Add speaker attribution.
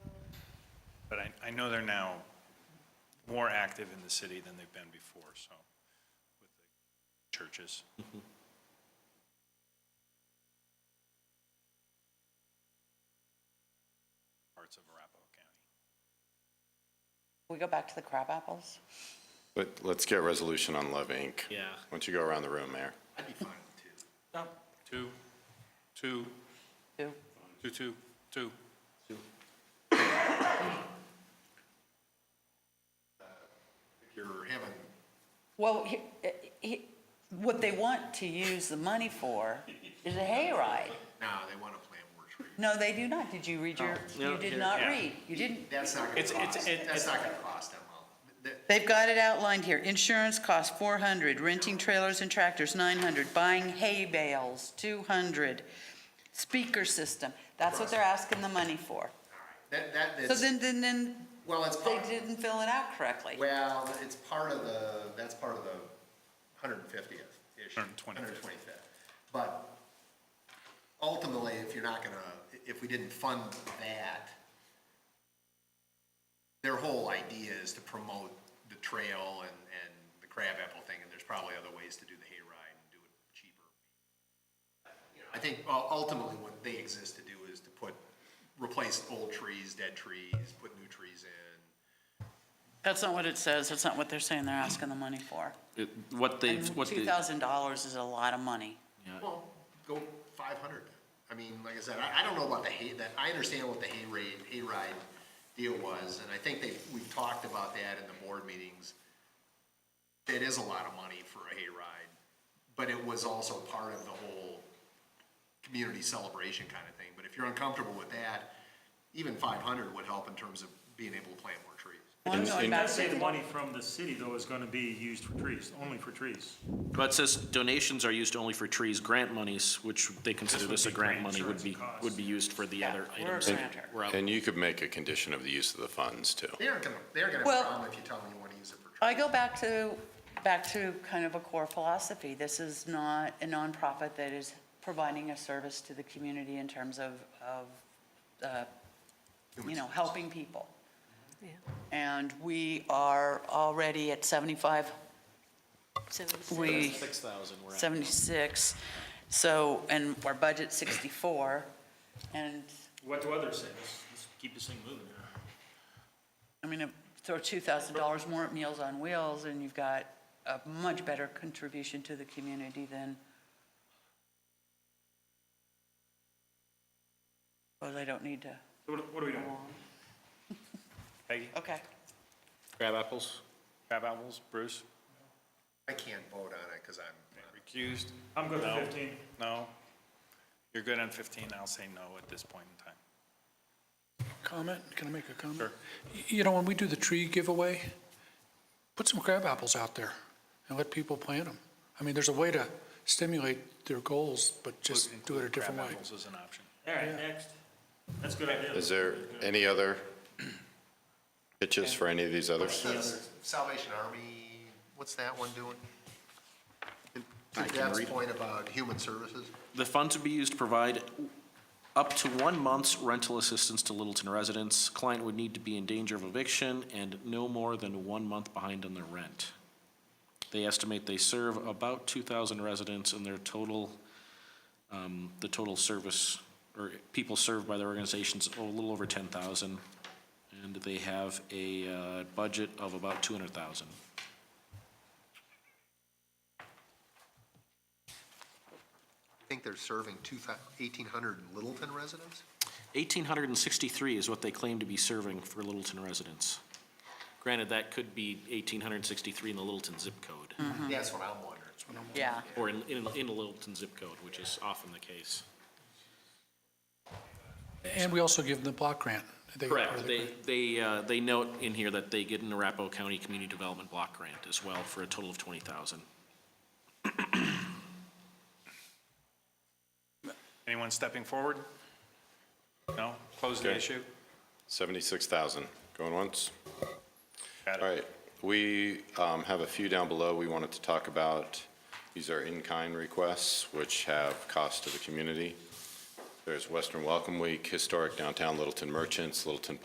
Speaker 1: But I, I know they're now more active in the city than they've been before, so, with the churches. Parts of Arapahoe County.
Speaker 2: We go back to the crab apples?
Speaker 3: But let's get resolution on Love Inc.
Speaker 4: Yeah.
Speaker 3: Why don't you go around the room, Mayor?
Speaker 1: I'd be fine with two. Two,
Speaker 2: Who?
Speaker 1: two, two, two, two.
Speaker 5: You're having,
Speaker 2: Well, he- he- what they want to use the money for is a hayride.
Speaker 5: no, they want to plan more trees.
Speaker 2: No, they do not. Did you read your, you
Speaker 4: No,
Speaker 2: did
Speaker 4: here.
Speaker 2: not
Speaker 1: Yeah.
Speaker 2: read. You didn't.
Speaker 5: That's not going
Speaker 1: It's-
Speaker 5: to
Speaker 1: it's-
Speaker 5: cost,
Speaker 1: it-
Speaker 5: that's
Speaker 1: it-
Speaker 5: not going to cost them well. That-
Speaker 2: They've got it outlined here. Insurance costs 400, renting trailers and tractors 900, buying hay bales 200, speaker system. That's what they're asking the money for.
Speaker 5: That, that,
Speaker 2: So
Speaker 5: that's,
Speaker 2: then, then, then
Speaker 5: well, it's,
Speaker 2: they
Speaker 5: part-
Speaker 2: didn't fill it out correctly.
Speaker 5: well, it's part of the, that's part of the 150th issue.
Speaker 1: 125th.
Speaker 5: 125th. But ultimately, if you're not going to, if we didn't fund that, their whole idea is to promote the trail and, and the crabapple thing, and there's probably other ways to do the hayride and do it cheaper. You know, I think uh, ultimately what they exist to do is to put, replace old trees, dead trees, put new trees in.
Speaker 2: That's not what it says. That's not what they're saying they're asking the money for.
Speaker 4: It- What they,
Speaker 2: And
Speaker 4: what they,
Speaker 2: $2,000 is a lot of money.
Speaker 5: Well, go five hundred. I mean, like I said, I, I don't know about the hay, that, I understand what the hay raid, hayride deal was, and I think they, we've talked about that in the board meetings. It is a lot of money for a hayride, but it was also part of the whole community celebration kind of thing. But if you're uncomfortable with that, even five hundred would help in terms of being able to plant more trees.
Speaker 2: Well, I'm
Speaker 3: It's
Speaker 2: going
Speaker 3: in-
Speaker 6: I
Speaker 2: back
Speaker 6: say the
Speaker 2: to,
Speaker 6: money from the city, though, is gonna be used for trees, only for trees.
Speaker 4: but it says donations are used only for trees, grant monies, which they consider
Speaker 6: would
Speaker 4: this a
Speaker 6: be
Speaker 4: grant
Speaker 6: grant
Speaker 4: money, would be,
Speaker 6: insurance costs.
Speaker 4: would be used for the
Speaker 2: Yeah,
Speaker 4: other
Speaker 2: we're a
Speaker 4: items. that
Speaker 2: grantor.
Speaker 4: were out.
Speaker 3: And you could make a condition of the use of the funds, too.
Speaker 5: They aren't gonna, they aren't gonna
Speaker 2: Well-
Speaker 5: have a problem if you tell them you wanna use it for trees.
Speaker 2: I go back to, back to kind of a core philosophy. This is not a nonprofit that is providing a service to the community in terms of, of, uh, you know, helping people. And we are already at 75, we,
Speaker 4: Six thousand, we're at.
Speaker 2: 76, so, and our budget's 64, and,
Speaker 6: What do others say? Let's, let's keep this thing moving.
Speaker 2: I mean, if- throw $2,000 more at Meals on Wheels, and you've got a much better contribution to the community than, well, they don't need to.
Speaker 6: So What, what are we doing?
Speaker 1: Peggy,
Speaker 2: Okay.
Speaker 4: Crab apples?
Speaker 1: crab apples, Bruce,
Speaker 5: I can't vote on it, cause I'm,
Speaker 1: recused?
Speaker 6: I'm good
Speaker 1: No.
Speaker 6: with fifteen.
Speaker 1: No? You're good on 15, I'll say no at this point in time.
Speaker 7: Comment? Can I make a comment?
Speaker 1: Sure.
Speaker 7: Y- You know, when we do the tree giveaway, put some crab apples out there and let people plant them. I mean, there's a way to stimulate their goals, but just do it a different
Speaker 1: Crab
Speaker 7: way.
Speaker 1: apples is an option.
Speaker 6: All right, next. That's a good idea.
Speaker 3: Is there any other pitches for any of these others?
Speaker 5: Says Salvation Army, what's that one doing?
Speaker 4: I
Speaker 5: To
Speaker 4: can
Speaker 5: Deb's
Speaker 4: read it.
Speaker 5: point about human services,
Speaker 4: The funds would be used to provide up to one month's rental assistance to Littleton residents. Client would need to be in danger of eviction and no more than one month behind on their rent. They estimate they serve about two thousand residents and their total, um, the total service, or people served by their organizations, oh, a little over ten thousand. And they have a, uh, budget of about two hundred thousand.
Speaker 5: I think they're serving two thou- 1,800 Littleton residents?
Speaker 4: Eighteen hundred and sixty-three is what they claim to be serving for Littleton residents. Granted, that could be eighteen hundred and sixty-three in the Littleton zip code,
Speaker 5: That's what I'm wondering.
Speaker 2: Yeah.
Speaker 4: or in, in, in a Littleton zip code, which is often the case.
Speaker 7: And we also give them the block grant. They- or
Speaker 4: Correct,
Speaker 7: the
Speaker 4: they,
Speaker 7: grant.
Speaker 4: they, uh, they note in here that they get an Arapahoe County Community Development Block Grant as well for a total of twenty thousand.
Speaker 1: Anyone stepping forward? No? Close the
Speaker 3: Okay.
Speaker 1: issue?
Speaker 3: 76,000, going once?
Speaker 1: Got it.
Speaker 3: All right, we um, have a few down below we wanted to talk about. These are in-kind requests, which have cost to the community. There's Western Welcome Week, Historic Downtown Littleton Merchants, Littleton